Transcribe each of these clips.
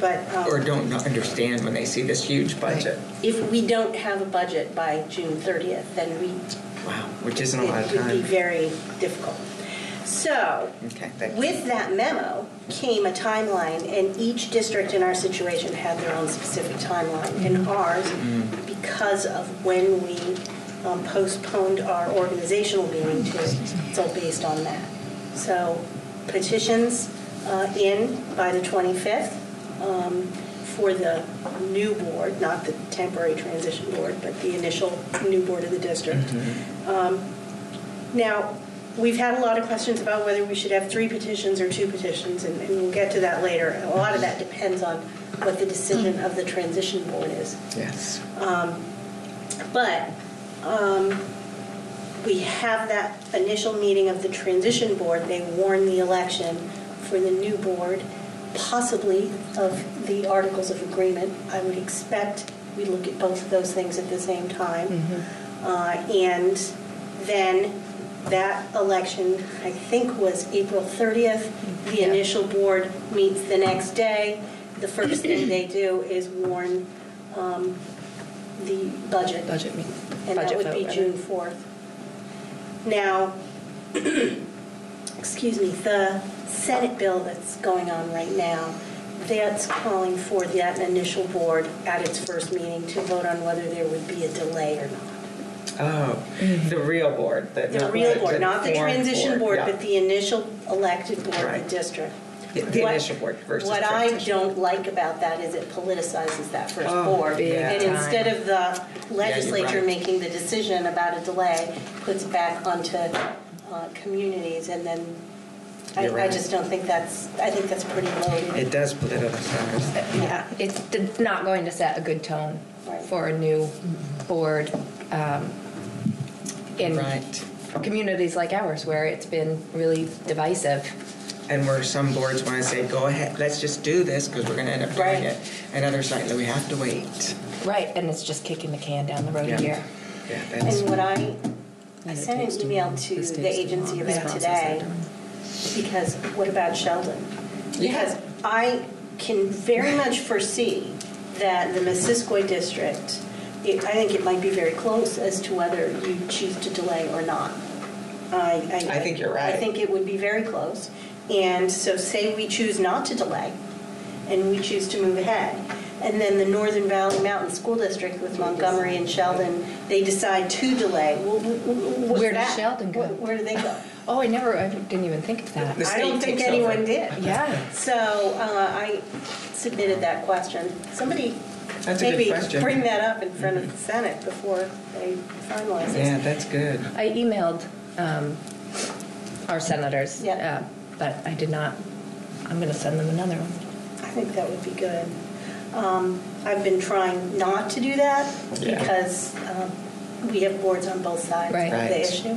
But um, or don't not understand when they see this huge budget. if we don't have a budget by June 30th, then we, Wow, which isn't a lot of it would be time. very difficult. So, Okay, thank you. with that memo came a timeline, and each district in our situation had their own specific timeline. And Mm-hmm. ours, because of when we um, postponed our organizational meeting to, it's all based on that. So petitions uh, in by the 25th um, for the new board, not the temporary transition board, but the initial new board of the district. Um, Now, we've had a lot of questions about whether we should have three petitions or two petitions, and and we'll get to that later. A lot of that depends on what the decision of the transition board is. Yes. Um, But um, we have that initial meeting of the transition board. They warn the election for the new board, possibly of the articles of agreement. I would expect we look at both of those things at the same time. Uh, And then that election, I think, was April 30th. The initial board meets the next day. The first thing they do is warn um, the budget. budget meeting. And that would be June 4th. Now, excuse me, the Senate bill that's going on right now, that's calling for that initial board at its first meeting to vote on whether there would be a delay or not. Oh, the real board. that- Mm-hmm. The not real the- board, not the foreign transition board, yeah. but the initial elected board of Right. the district. The- the What- initial board versus What I transition. don't like about that is it politicizes that first Oh, board. big And time. instead of the legislature right. making the decision about a delay, puts it back onto uh, communities, and then I You're I right. just don't think that's, I think that's pretty It loaded. does politicize. Uh, Yeah, Uh, it's it's not going to set a good tone Right. for a new board um, in Right. communities like ours where it's been really divisive. And where some boards want to say, go ahead, let's just do this because we're going to end up doing Right. it. And others like, no, we have to wait. Right, and it's just kicking the can down the road Yeah. a year. Yeah, that's, And what I, I it sent takes an too email long. to This the takes too agency long. about This process today. I don't- because what about Sheldon? Yeah. Because I can very much foresee that the Missisquoi district, it, I think it might be very close as to whether you choose to delay or not. I, I, I think you're right. I think it would be very close. And so, say we choose not to delay, and we choose to move ahead. And then the Northern Valley Mountain School District with Montgomery and Sheldon, they decide to delay. Well, wh- wh- what's Where does that? Sheldon go? Wh- Where do they go? Oh, I never, I didn't even think of that. The I don't think state takes over. anyone did. Yeah. So uh, I submitted that question. Somebody That's a good maybe question. bring that up in front of the Senate before they finalize yeah, it. that's good. I emailed um, our senators, Yeah. uh, but I did not, I'm going to send them another one. I think that would be good. Um, I've been trying not to do that Yeah. because um, we have boards on both sides of Right. the Right. issue.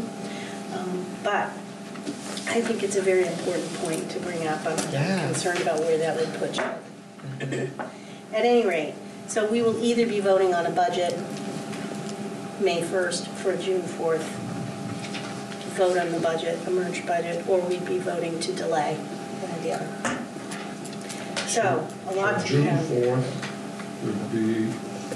Um, But I think it's a very important point to bring up. I'm Yeah. Mm-hmm. concerned about where that would put you. At any rate, so we will either be voting on a budget May 1st for June 4th, to vote on the budget, the merged budget, or we'd be voting to delay one or the other. So, a lot to June have, 4th would be,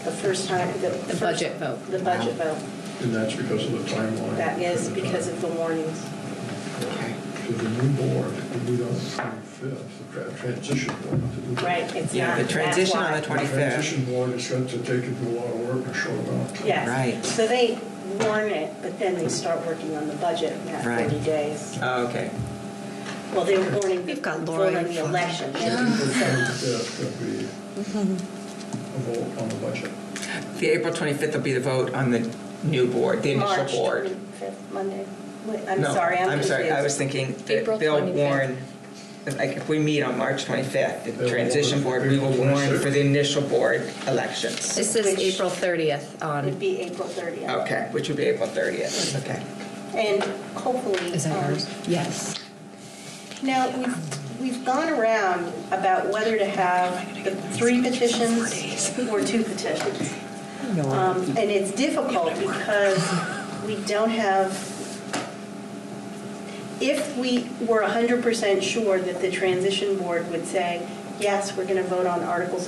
the first time, the... The first- budget vote. The budget vote, and that's because of the timeline. that is because of the warnings. Okay. To the new board, we do it on the 25th, the tra- transition board. to do that. Right, it's Yeah, not, the that's transition on why. the The 25th. transition board is going to take it to a lot of work and show up. Yes. Right. So they warn it, but then they start working on the budget in that Right. 30 days. Oh, okay. Well, they were warning, You've got Laura voting in the front. election. The So- 25th would be a vote on the budget. The April 25th will be the vote on the new board, the initial March board. 25th, Monday. Wait, I'm No, sorry, I'm confused. sorry, I was thinking that April they'll 25th. warn, like, if we meet on March 25th, the They'll transition warn board, for we will April warn 26th. for the initial board elections. This is Which- April 30th It'd on, be April 30th. Okay, which would be April 30th, okay. And hopefully. is that um, yours? Yes. Now, we've, we've gone around about whether to have the three petitions or two petitions. Um, And it's difficult because we don't have, if we were 100% sure that the transition board would say, yes, we're going to vote on articles